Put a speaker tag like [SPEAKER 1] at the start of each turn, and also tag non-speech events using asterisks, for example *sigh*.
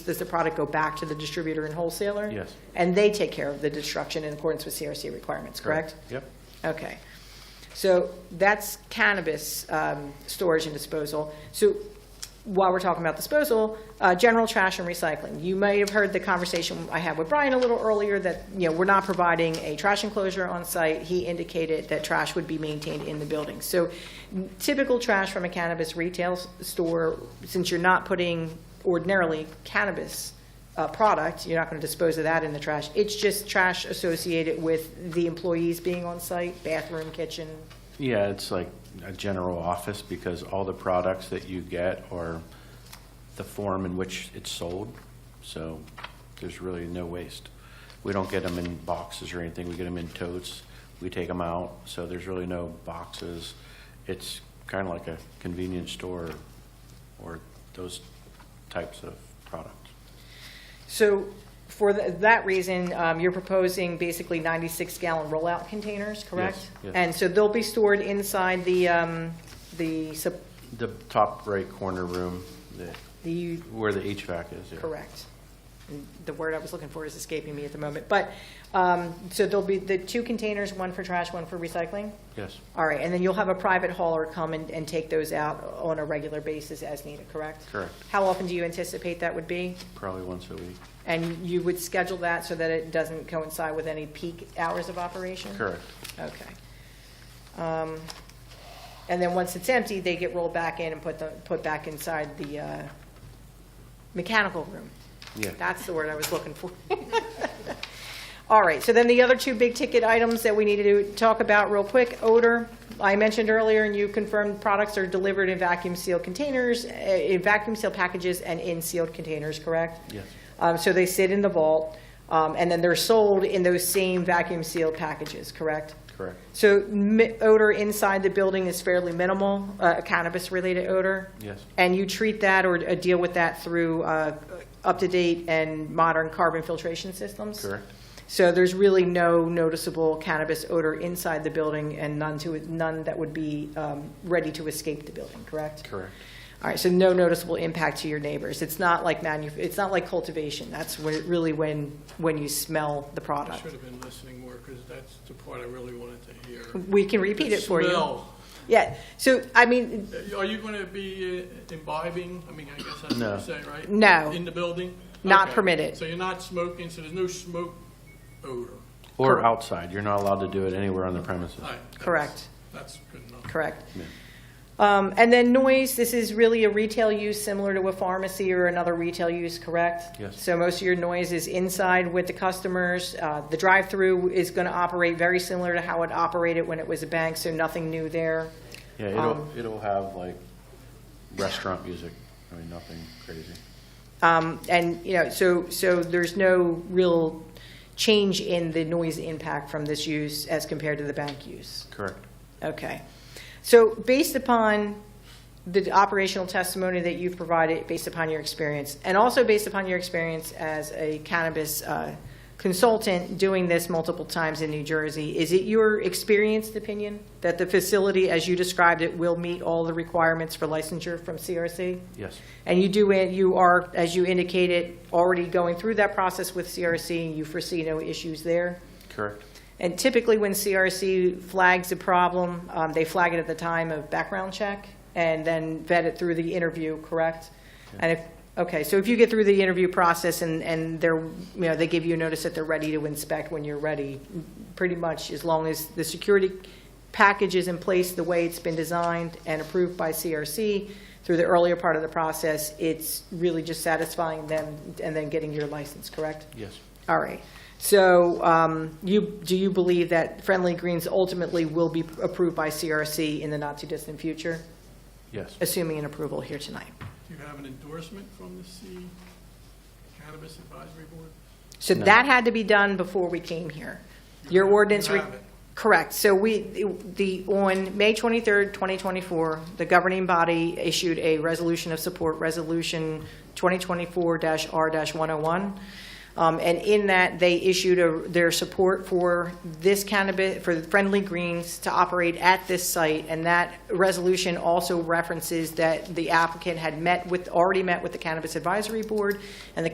[SPEAKER 1] does the product go back to the distributor and wholesaler?
[SPEAKER 2] Yes.
[SPEAKER 1] And they take care of the destruction in accordance with CRC requirements, correct?
[SPEAKER 2] Yep.
[SPEAKER 1] Okay. So that's cannabis um, storage and disposal. So while we're talking about disposal, uh, general trash and recycling. You may have heard the conversation I had with Brian a little earlier that, you know, we're not providing a trash enclosure on site. He indicated that trash would be maintained in the building. So typical trash from a cannabis retail s- store, since you're not putting ordinarily cannabis uh, product, you're not going to dispose of that in the trash. It's just trash associated with the employees being on site, bathroom, kitchen.
[SPEAKER 2] Yeah, it's like a general office because all the products that you get are the form in which it's sold. So there's really no waste. We don't get them in boxes or anything. We get them in totes. We take them out. So there's really no boxes. It's kind of like a convenience store or those types of products.
[SPEAKER 1] So for th- that reason, um, you're proposing basically 96 gallon rollout containers, correct?
[SPEAKER 2] yes.
[SPEAKER 1] And so they'll be stored inside the, um, the, sup-
[SPEAKER 2] The top right corner room, the-
[SPEAKER 1] the
[SPEAKER 2] where the HVAC is. yeah.
[SPEAKER 1] Correct. And The word I was looking for is escaping me at the moment. But, um, so there'll be the two containers, one for trash, one for recycling?
[SPEAKER 2] Yes.
[SPEAKER 1] All right, and then you'll have a private hauler come and, and take those out on a regular basis as needed, correct?
[SPEAKER 2] Correct.
[SPEAKER 1] How often do you anticipate that would be?
[SPEAKER 2] Probably once a week.
[SPEAKER 1] And you would schedule that so that it doesn't coincide with any peak hours of operation?
[SPEAKER 2] Correct.
[SPEAKER 1] Okay. Um, And then once it's empty, they get rolled back in and put the, put back inside the uh, mechanical room?
[SPEAKER 2] Yeah.
[SPEAKER 1] That's the word I was looking for. *laughs* All right, so then the other two big-ticket items that we need to talk about real quick, odor. I mentioned earlier, and you confirmed, products are delivered in vacuum-sealed containers, eh, in vacuum-sealed packages and in sealed containers, correct?
[SPEAKER 2] Yes.
[SPEAKER 1] Um, So they sit in the vault, um, and then they're sold in those same vacuum-sealed packages, correct?
[SPEAKER 2] Correct.
[SPEAKER 1] So mi- odor inside the building is fairly minimal, uh, cannabis-related odor?
[SPEAKER 2] Yes.
[SPEAKER 1] And you treat that or uh, deal with that through uh, up-to-date and modern carbon filtration systems?
[SPEAKER 2] Correct.
[SPEAKER 1] So there's really no noticeable cannabis odor inside the building and none to, none that would be um, ready to escape the building, correct?
[SPEAKER 2] Correct.
[SPEAKER 1] All right, so no noticeable impact to your neighbors. It's not like manu, it's not like cultivation. That's when, really when, when you smell the
[SPEAKER 3] I
[SPEAKER 1] product.
[SPEAKER 3] should have been listening more, because that's the part I really wanted to hear.
[SPEAKER 1] We can repeat
[SPEAKER 3] The
[SPEAKER 1] it for you.
[SPEAKER 3] smell.
[SPEAKER 1] Yeah, so, I mean,
[SPEAKER 3] Uh, Are you going to be uh, imbibing? I mean, I guess that's what
[SPEAKER 2] No.
[SPEAKER 3] you're saying, right?
[SPEAKER 1] No.
[SPEAKER 3] In the building?
[SPEAKER 1] Not
[SPEAKER 3] Okay.
[SPEAKER 1] permitted.
[SPEAKER 3] So you're not smoking, so there's no smoke odor?
[SPEAKER 2] Or
[SPEAKER 1] Correct.
[SPEAKER 2] outside, you're not allowed to do it anywhere on the premises.
[SPEAKER 3] All right, that's-
[SPEAKER 1] Correct.
[SPEAKER 3] That's good enough.
[SPEAKER 1] correct.
[SPEAKER 2] Yeah.
[SPEAKER 1] Um, And then noise, this is really a retail use similar to a pharmacy or another retail use, correct?
[SPEAKER 2] Yes.
[SPEAKER 1] So most of your noise is inside with the customers. Uh, The drive-through is going to operate very similar to how it operated when it was a bank, so nothing new there.
[SPEAKER 2] Yeah, it'll, it'll have like restaurant music, I mean, nothing crazy.
[SPEAKER 1] Um, And, you know, so, so there's no real change in the noise impact from this use as compared to the bank use.
[SPEAKER 2] Correct.
[SPEAKER 1] Okay. So based upon the operational testimony that you've provided, based upon your experience, and also based upon your experience as a cannabis uh, consultant doing this multiple times in New Jersey, is it your experienced opinion that the facility, as you described it, will meet all the requirements for licensure from CRC?
[SPEAKER 2] Yes,
[SPEAKER 1] And you do, it- you are, as you indicated, already going through that process with CRC, and you foresee no issues there?
[SPEAKER 2] correct.
[SPEAKER 1] And typically, when CRC flags a problem, um, they flag it at the time of background check and then vet it through the interview, correct? And if, okay, so if you get through the interview process and, and they're, you know, they give you notice that they're ready to inspect when you're ready, pretty much as long as the security package is in place the way it's been designed and approved by CRC through the earlier part of the process, it's really just satisfying them and then getting your license, correct?
[SPEAKER 2] Yes,
[SPEAKER 1] All right. So um, you, do you believe that Friendly Greens ultimately will be approved by CRC in the not-too-distant future,
[SPEAKER 2] yes,
[SPEAKER 1] assuming an approval here tonight?
[SPEAKER 3] Do you have an endorsement from the C Cannabis Advisory Board?
[SPEAKER 1] So
[SPEAKER 2] No.
[SPEAKER 1] that had to be done before we came here. Your
[SPEAKER 3] You
[SPEAKER 1] ordinance. re-
[SPEAKER 3] have it.
[SPEAKER 1] Correct. So we, the, on May 23rd, 2024, the governing body issued a resolution of support, Resolution 2024-R-101. Um, And in that, they issued a- their support for this cannabis, for Friendly Greens to operate at this site. And that resolution also references that the applicant had met with, already met with the Cannabis Advisory Board, and the